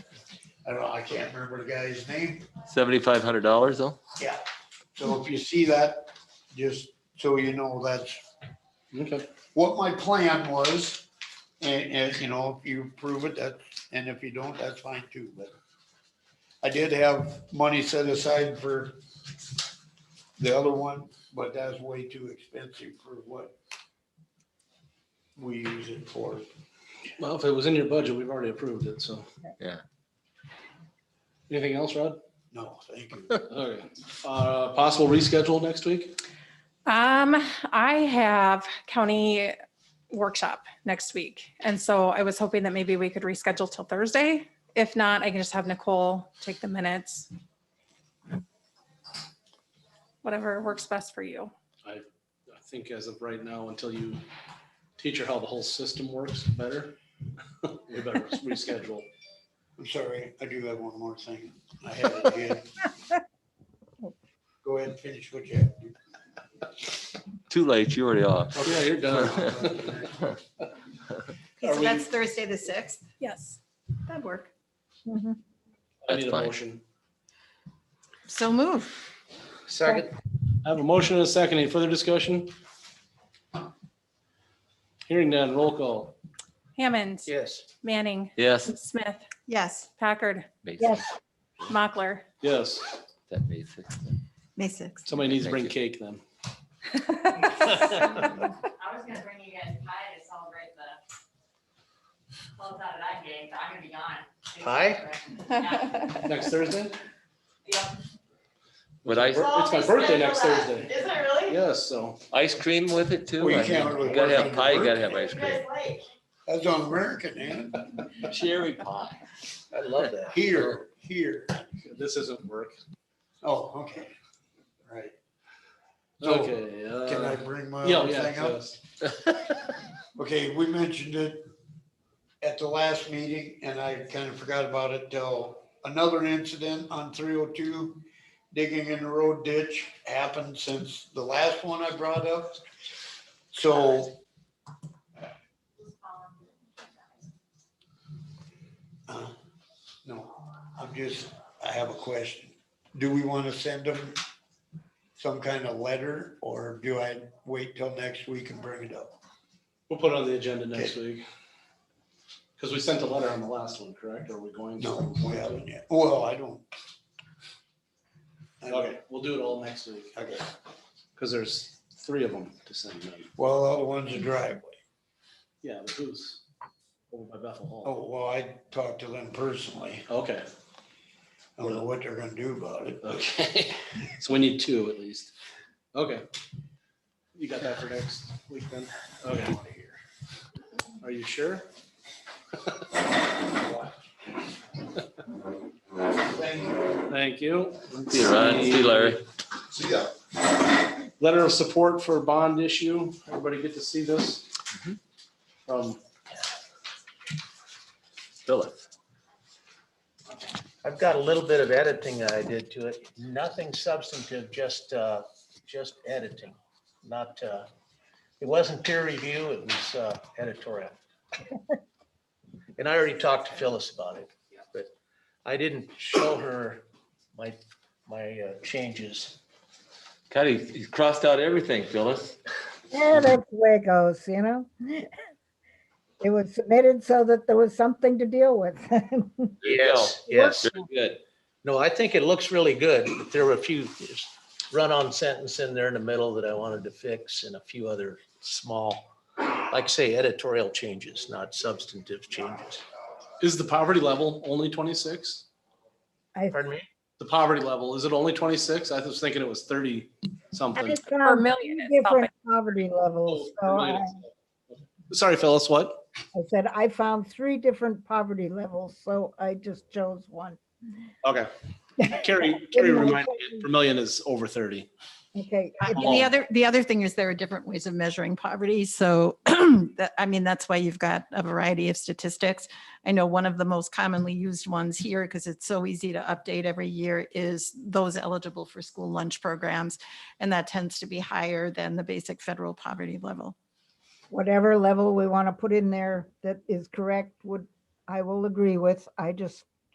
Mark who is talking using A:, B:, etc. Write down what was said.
A: I don't, know, I can't remember the guy's name.
B: Seventy-five hundred dollars though?
A: Yeah. So if you see that, just so you know, that's
C: Okay.
A: what my plan was. And, and, you know, if you approve it, that, and if you don't, that's fine too, but I did have money set aside for the other one, but that's way too expensive for what we use it for.
C: Well, if it was in your budget, we've already approved it, so.
B: Yeah.
C: Anything else, Rod?
A: No, thank you.
C: Okay. Uh, possible reschedule next week?
D: Um, I have county workshop next week. And so I was hoping that maybe we could reschedule till Thursday. If not, I can just have Nicole take the minutes. Whatever works best for you.
C: I think as of right now, until you teach her how the whole system works better, we better reschedule.
A: I'm sorry, I do have one more thing. I had it again. Go ahead and finish what you have. to do.
B: Too late, you already off.
C: Oh, yeah, you're done.
E: Okay,
C: Are
E: so
C: we-
E: that's Thursday, the sixth.
D: Yes.
E: That'd work.
C: I need
B: That's
C: a
B: fine.
C: motion.
E: So move.
D: Second.
C: I have a motion and a second. Any further discussion? Hearing none, roll call.
D: Hammond.
C: Yes.
D: Manning.
B: Yes.
D: Smith.
E: Yes,
D: Packard.
B: Basic,
F: Yes,
D: Mockler.
C: Yes.
B: that basic.
E: May sixth.
C: Somebody needs
B: Thank
C: to bring
B: you.
C: cake then.
G: I was gonna bring you guys pie to celebrate the close out of that game, but I'm gonna be gone. Pie?
C: Next Thursday?
B: Would I,
C: It's my birthday next Thursday.
G: Is it really?
C: Yes, so.
B: ice cream with it too?
A: Well, you
B: I mean,
A: can't really
B: you Gotta
A: work
B: have
A: on
B: pie, you
A: work.
B: gotta have ice cream.
A: That's on American, man.
B: Cherry pie.
H: I love that.
A: Here, here.
C: This isn't work.
A: Oh, okay. Right. So
C: Okay.
A: Oh, can I
C: uh,
A: bring my
C: Yeah,
A: other
C: yeah.
A: thing up?
C: yes.
A: Okay, we mentioned it at the last meeting and I kind of forgot about it till another incident on three oh two. Digging in the road ditch happened since the last one I brought up. So, uh, no, I'm just, I have a question. Do we want to send them some kind of letter or do I wait till next week and bring it up?
C: We'll put it on the agenda next week. Because we sent a letter on the last one, correct? Are we going to?
A: No, we haven't yet. Well, I don't. I don't-
C: Okay, we'll do it all next week.
A: Okay.
C: Because there's three of them to send in.
A: Well, the other one's a driveway.
C: Yeah, the booths over by Bethel Hall.
A: Oh, well, I talked to them personally.
C: Okay,
A: I don't know what they're gonna do about it.
C: okay. So we need two at least. Okay. You got that for next week then? Okay. Are you sure?
A: Thank you.
C: Thank you.
B: See you, Ryan. See you, Larry.
H: So, yeah,
C: Letter of support for bond issue. Everybody get to see this? Um, From
B: Phillips.
H: I've got a little bit of editing that I did to it. Nothing substantive, just, uh, just editing, not, uh, it wasn't peer review, it was, uh, editorial. And I already talked to Phyllis about it, but I didn't show her my, my uh, changes.
B: God, he, he's crossed out everything, Phyllis.
F: yeah, that's the way it goes, you know? It was submitted so that there was something to deal with.
B: There you go.
H: Yes.
B: Very good.
H: No, I think it looks really good, but there were a few just run-on sentence in there in the middle that I wanted to fix and a few other small, like I say, editorial changes, not substantive changes.
C: Is the poverty level only twenty-six?
F: I
H: Pardon me?
C: The poverty level, is it only twenty-six? I was thinking it was thirty something.
D: Or
F: found
D: million. is
F: different
D: something.
F: poverty
C: Oh,
F: levels. So I
C: Sorry, Phyllis, what?
F: I said, I found three different poverty levels, so I just chose one.
C: Okay. Carrie, Carrie reminded me, per million is over thirty.
F: Okay.
E: And
F: it-
E: the other, the other thing is there are different ways of measuring poverty. So that, I mean, that's why you've got a variety of statistics. I know one of the most commonly used ones here, because it's so easy to update every year, is those eligible for school lunch programs. And that tends to be higher than the basic federal poverty level.
F: Whatever level we want to put in there that is correct would, I will agree with. I just